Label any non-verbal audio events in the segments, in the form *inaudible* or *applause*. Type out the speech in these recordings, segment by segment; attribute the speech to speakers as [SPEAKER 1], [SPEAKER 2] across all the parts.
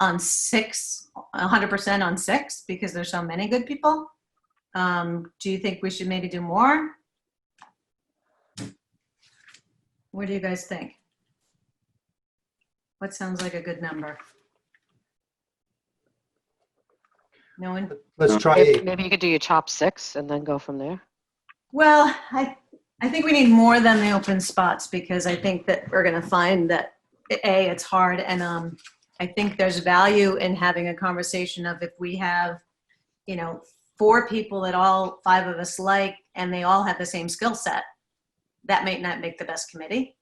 [SPEAKER 1] on six, 100% on six, because there's so many good people. Um, Do you think we should maybe do more? What do you guys think? What sounds like a good number? No one?
[SPEAKER 2] Let's try
[SPEAKER 3] Maybe
[SPEAKER 2] eight.
[SPEAKER 3] maybe you could do your top six and then go from there.
[SPEAKER 1] Well, I, I think we need more than the open spots because I think that we're going to find that a it's hard and um I think there's value in having a conversation of if we have you know four people that all five of us like and they all have the same skill set that might not make the best committee.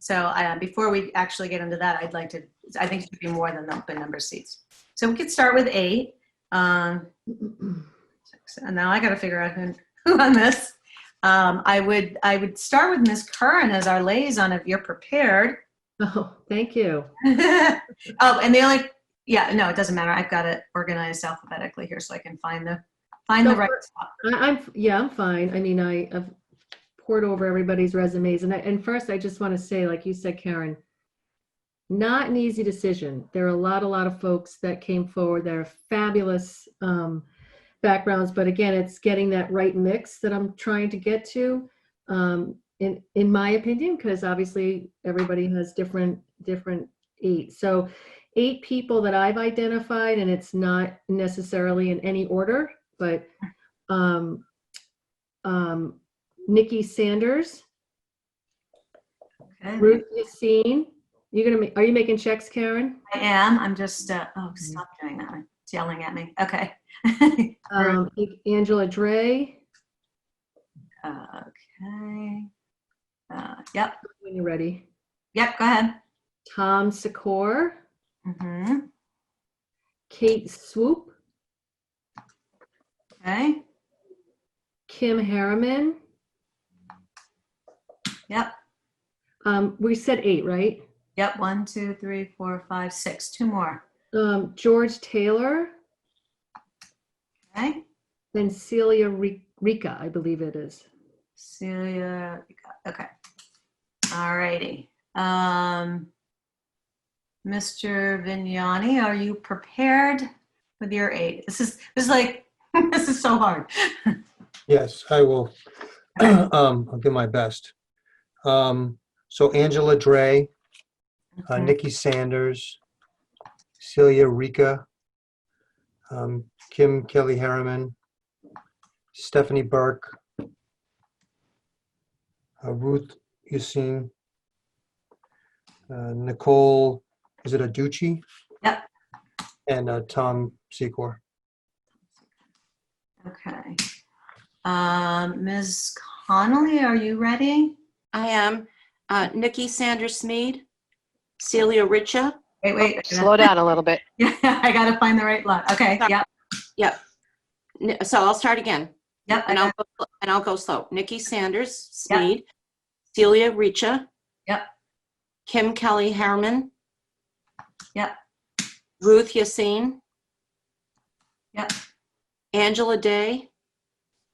[SPEAKER 1] So uh, before we actually get into that, I'd like to I think it should be more than the open number of seats. So we could start with eight. Um, *clears throat* six, and now I got to figure out who *laughs* on this. Um, I would I would start with Miss Curran as our liaison if you're prepared. *laughs*
[SPEAKER 4] *laughs* Oh, thank you.
[SPEAKER 1] oh, and the only yeah no it doesn't matter. I've got it organized alphabetically here so I can find the find the
[SPEAKER 4] Go
[SPEAKER 1] right
[SPEAKER 4] for it.
[SPEAKER 1] spot.
[SPEAKER 4] I, I'm, yeah, I'm fine. I mean, I, I've poured over everybody's resumes and I, and first I just want to say, like you said, Karen, not an easy decision. There are a lot, a lot of folks that came forward that are fabulous um, backgrounds, but again, it's getting that right mix that I'm trying to get to, um, in in my opinion, because obviously everybody has different different eight. So, eight people that I've identified, and it's not necessarily in any order, but um, um, Nikki Sanders,
[SPEAKER 1] Okay.
[SPEAKER 4] Ruth Yassine. You're gonna, ma- are you making checks, Karen?
[SPEAKER 1] I am. I'm just uh, oh stop doing that. It's yelling at me. Okay. *laughs* Ruth.
[SPEAKER 4] Um, Angela Dre,
[SPEAKER 1] okay. Uh, yep.
[SPEAKER 4] when you're ready.
[SPEAKER 1] Yep. Go ahead.
[SPEAKER 4] Tom Secor,
[SPEAKER 1] hmm
[SPEAKER 4] Kate Swoop,
[SPEAKER 1] Okay.
[SPEAKER 4] Kim Harriman.
[SPEAKER 1] Yep.
[SPEAKER 4] Um, we said eight, right?
[SPEAKER 1] Yep. One, two, three, four, five, six. Two more.
[SPEAKER 4] Um, George Taylor,
[SPEAKER 1] Okay.
[SPEAKER 4] then Celia Ri- Rica, I believe it is.
[SPEAKER 1] Celia, you got- okay. All righty. Um, Mr. Vignani, are you prepared with your eight? This is, this is like, *laughs* this is so hard.
[SPEAKER 2] Yes, I will. *clears throat* Um, I'll do my best. Um, so Angela Dre, uh, Nikki Sanders, Celia Rica, um, Kim Kelly Harriman, Stephanie Burke, uh, Ruth Yusin, uh, Nicole, is it Aducci?
[SPEAKER 1] Yep.
[SPEAKER 2] And uh, Tom Secor.
[SPEAKER 1] Okay. Um, Ms. Connolly, are you ready?
[SPEAKER 5] I am uh, Nikki Sanders Smead, Celia Richa,
[SPEAKER 1] Wait, wait. I gotta-
[SPEAKER 3] Slow down a little bit.
[SPEAKER 1] Yeah, *laughs* I gotta find the right lot. Okay, yep,
[SPEAKER 5] N- so I'll start again,
[SPEAKER 1] yep. I
[SPEAKER 5] and I'll,
[SPEAKER 1] got-
[SPEAKER 5] go- and I'll go slow. Nikki Sanders
[SPEAKER 1] Yep.
[SPEAKER 5] Smead, Celia Richa.
[SPEAKER 1] Yep.
[SPEAKER 5] Kim Kelly Harriman.
[SPEAKER 1] Yep.
[SPEAKER 5] Ruth Yassine.
[SPEAKER 1] Yep.
[SPEAKER 5] Angela Day,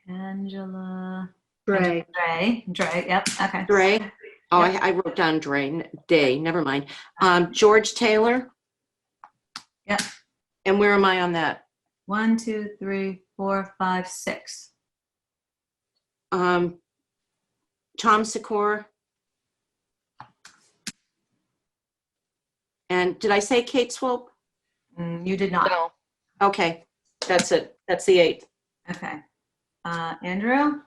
[SPEAKER 1] Angela,
[SPEAKER 4] Dre.
[SPEAKER 1] Dre, Dre, yep, okay.
[SPEAKER 5] Dre. Oh, I, I wrote down Dre, n- Day, never mind. Um, George Taylor.
[SPEAKER 1] Yep.
[SPEAKER 5] And where am I on that?
[SPEAKER 1] One, two, three, four, five, six.
[SPEAKER 5] Um, Tom Secor. And did I say Kate Swope?
[SPEAKER 1] Mm, You did not.
[SPEAKER 3] No.
[SPEAKER 5] Okay, that's it. That's the eight.
[SPEAKER 1] Okay. Uh, Andrew,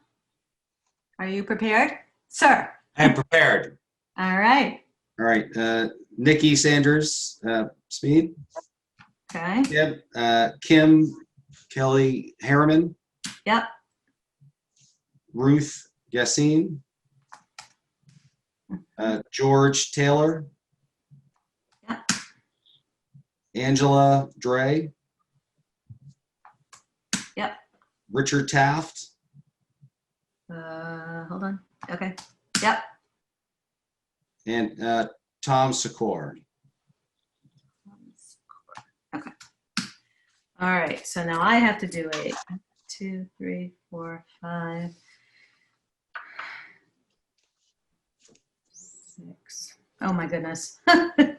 [SPEAKER 1] are you prepared? Sir,
[SPEAKER 6] I'm prepared.
[SPEAKER 1] all right,
[SPEAKER 6] All right, uh, Nikki Sanders, uh, Speed,
[SPEAKER 1] okay,
[SPEAKER 6] Yep. uh, Kim, Kelly Harriman,
[SPEAKER 1] yep,
[SPEAKER 6] Ruth Yassine, uh, George Taylor,
[SPEAKER 1] Yeah.
[SPEAKER 6] Angela Dre,
[SPEAKER 1] Yep.
[SPEAKER 6] Richard Taft,
[SPEAKER 1] uh, hold on, okay, yep.
[SPEAKER 6] and uh, Tom Secor.
[SPEAKER 1] Okay. All right, so now I have to do eight. Two, three, four, five, six. Oh my goodness. *laughs*